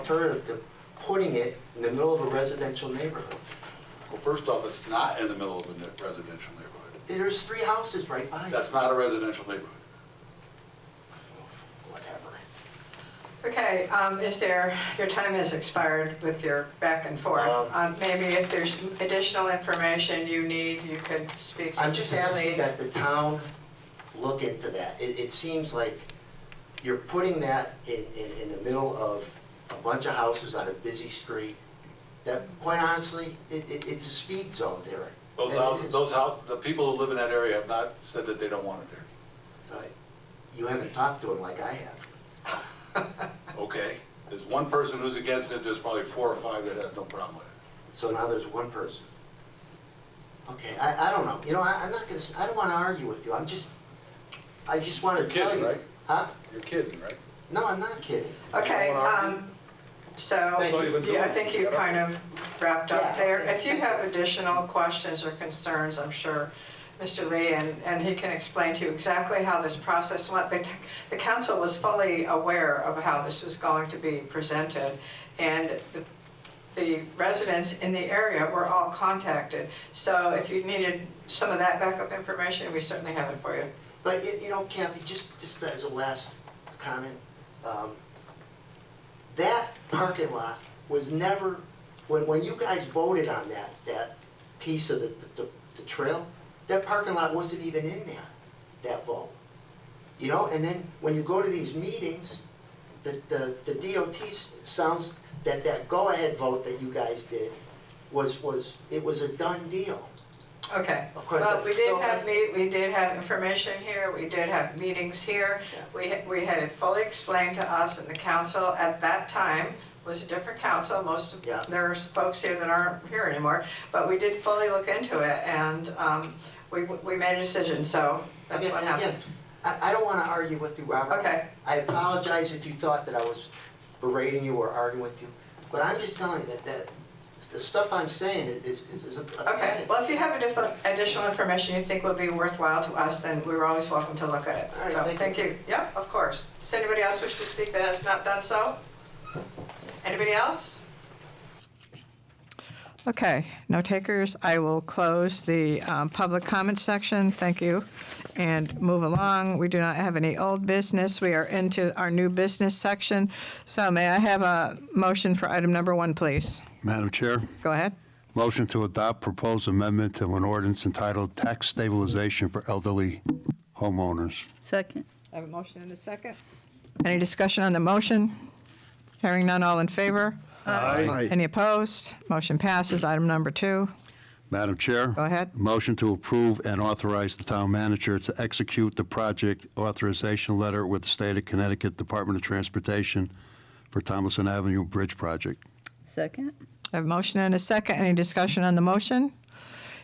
alternative to putting it in the middle of a residential neighborhood? Well, first off, it's not in the middle of a ne- residential neighborhood. There's three houses right by it. That's not a residential neighborhood. Whatever. Okay, um, is there, your time has expired with your back and forth. Um, Um, Maybe if there's additional information you need, you could speak to I'm just asking Julie. that the town look into that. It, it seems like you're putting that in, in, in the middle of a bunch of houses on a busy street. That, quite honestly, it, it, it's a speed zone there. Those It houses, is. those houses, the people who live in that area have not said that they don't want it there. Uh, You haven't talked to them like I have. Okay? There's one person who's against it, there's probably four or five that have no problem with it. So now there's one person. Okay, I, I don't know. You know, I, I'm not gonna, s- I don't wanna argue with you. I'm just, I just wanna You're tell you. kidding, right? Huh? You're kidding, right? No, I'm not kidding. Okay, You wanna argue? um, so, That's all you've been yeah, I doing. think you kind of wrapped up Yeah. there. If you have additional questions or concerns, I'm sure Mr. Lee, and, and he can explain to you exactly how this process went. The, the council was fully aware of how this was going to be presented, and the the residents in the area were all contacted. So if you needed some of that backup information, we certainly have it for you. But, you- you know, Kathy, just, just as a last comment, um, that parking lot was never, when, when you guys voted on that, that piece of the, the, the trail, that parking lot wasn't even in there, that vote. You know, and then when you go to these meetings, the, the, the DOT s- sounds that that go-ahead vote that you guys did was, was, it was a done deal. Okay, Of course. well, we did So- have meet, we did have information here, we did have meetings here. Yeah. We, ha- we had it fully explained to us and the council at that time was a different council. Most of, Yeah. there's folks here that aren't here anymore, but we did fully look into it and, um, we, we made a decision, so that's Again- what happened. again, I, I don't want to argue with you, Robert. Okay. I apologize if you thought that I was berating you or arguing with you, but I'm just telling you that, that the stuff I'm saying is, is is Okay, upsetting. All well, if you have additional- additional information you think would be worthwhile to us, then we're always welcome to look at it. All right, So, thank you. thank you. Yep, of course. Does anybody else wish to speak that has not done so? Anybody else? Okay, no takers. I will close the um, public comment section. Thank you. And move along. We do not have any old business. We are into our new business section. So may I have a motion for item number one, please? Madam Chair, Go ahead. motion to adopt proposed amendment to an ordinance entitled Tax Stabilization for Elderly Homeowners. Second. I have a motion and a second. Any discussion on the motion? Hearing none, all in favor? Aye. Any opposed? Motion passes. Item number two. Madam Chair. Go ahead. Motion to approve and authorize the town manager to execute the project authorization letter with the State of Connecticut Department of Transportation for Thomason Avenue Bridge Project. Second. I have a motion and a second. Any discussion on the motion?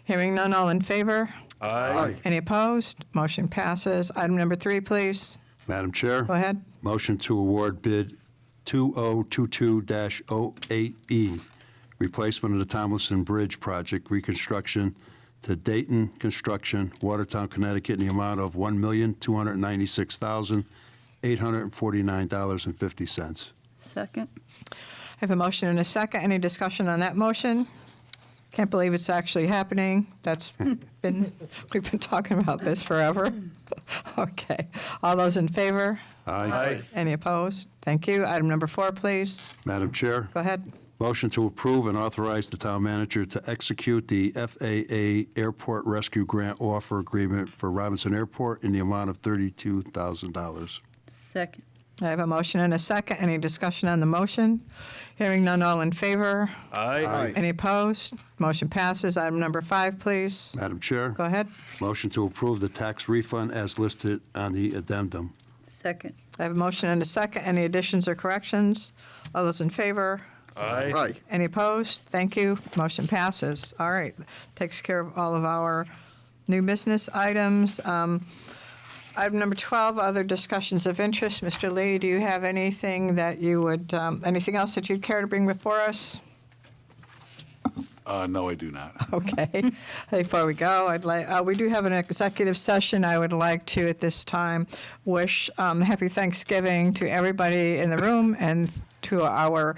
Hearing none, all in favor? Aye. Any opposed? Motion passes. Item number three, please. Madam Chair. Go ahead. Motion to award bid 2022-08E, E, replacement of the Tomlinson Bridge Project reconstruction to Dayton Construction, Watertown, Connecticut, in the amount of $1,296,849.50. Second. I have a motion and a second. Any discussion on that motion? Can't believe it's actually happening. That's been, we've been talking about this forever. Okay. All those in favor? Aye. Any opposed? Thank you. Item number four, please. Madam Chair. Go ahead. Motion to approve and authorize the town manager to execute the FAA Airport Rescue Grant Offer Agreement for Robinson Airport in the amount of $32,000. Second. I have a motion and a second. Any discussion on the motion? Hearing none, all in favor? Aye. Any opposed? Motion passes. Item number five, please. Madam Chair. Go ahead. Motion to approve the tax refund as listed on the addendum. Second. I have a motion and a second. Any additions or corrections? All those in favor? Aye. Any opposed? Thank you. Motion passes. All right. Takes care of all of our new business items. Um, Item number 12, other discussions of interest. Mr. Lee, do you have anything that you would, um, anything else that you'd care to bring before us? Uh, no, I do not. Okay. Before we go, I'd like, uh, we do have an executive session. I would like to, at this time, wish um, happy Thanksgiving to everybody in the room and to our